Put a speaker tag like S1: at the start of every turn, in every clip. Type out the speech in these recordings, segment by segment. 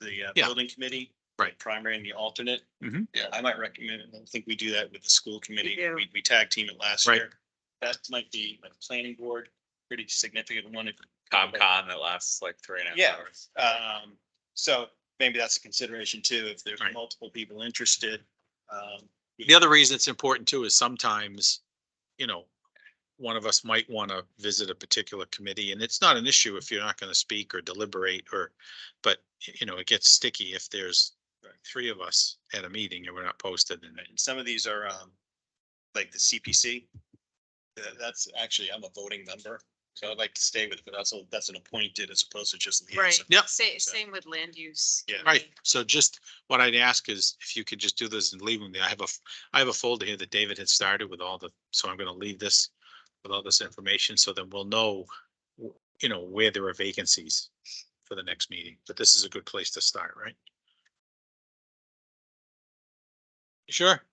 S1: the uh,
S2: Yeah.
S1: building committee.
S2: Right.
S1: Primary and the alternate.
S2: Mhm.
S1: Yeah, I might recommend, I don't think we do that with the school committee.
S3: do.
S1: We, we tag team it last
S2: Right.
S1: year. That might be like planning board, pretty significant one. if-
S4: ComCon that lasts like three and a
S1: Yeah.
S4: half hours.
S1: Um, so maybe that's a consideration too, if there's
S2: Right.
S1: multiple people interested. Um,
S2: The other reason it's important too is sometimes, you know, one of us might want to visit a particular committee and it's not an issue if you're not going to speak or deliberate or, but you know, it gets sticky if there's
S1: Right.
S2: three of us at a meeting and we're not posted and
S1: and some of these are, um, like the CPC. That- that's actually, I'm a voting member, so I'd like to stay with, it, but that's, a- that's an appointed as opposed to just. liaison.
S3: Right.
S2: Yep.
S3: Same, same with land use.
S1: Yeah.
S2: Right, so just what I'd ask is if you could just do this and leave them there. I have a, f- I have a folder here that David had started with all the, so I'm gonna leave this with all this information, so then we'll know, w- you know, where there are vacancies for the next meeting, but this is a good place to start, right? Sure,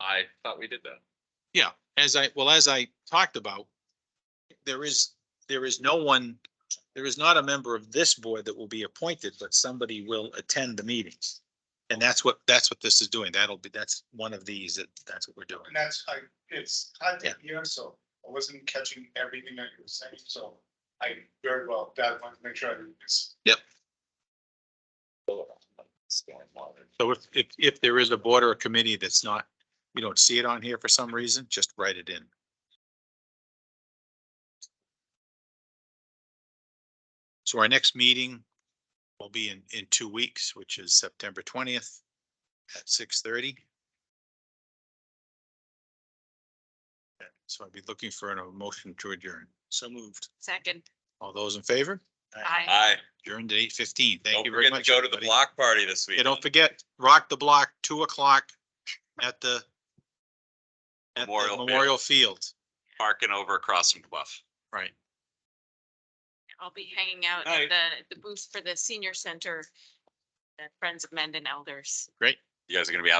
S4: I thought we did that.
S2: as I, well, as I talked about, there is, there is no one, there is not a member of this board that will be appointed, but somebody will attend the meetings. And that's what, that's what this is doing. That'll be, that's one of these, that, that's what we're doing.
S5: And that's, I, it's hard to hear, so I wasn't catching everything that you were saying, so I very well, that one, make sure I didn't miss.
S2: So if, if, if there is a board or a committee that's not, you don't see it on here for some reason, just write it in. So our next meeting will be in, in two weeks, which is September twentieth at six thirty. So I'd be looking for an motion to adjourn.
S1: So moved.
S3: Second,
S2: All those in favor?
S3: I.
S4: Aye.
S2: Adjourned at eight fifteen. Thank
S4: Don't
S2: you very
S4: forget to go
S2: much.
S4: to the
S2: everybody.
S4: block party this week.
S2: Yeah, don't forget, rock the block, two o'clock at the at the
S4: Memorial Field.
S2: Memorial Field.
S4: Parking over across from Bluff.
S2: Right.
S3: I'll be hanging out
S4: Aye.
S3: at the, the booth for the senior center, the Friends of Mendon Elders.
S4: You guys are gonna be out.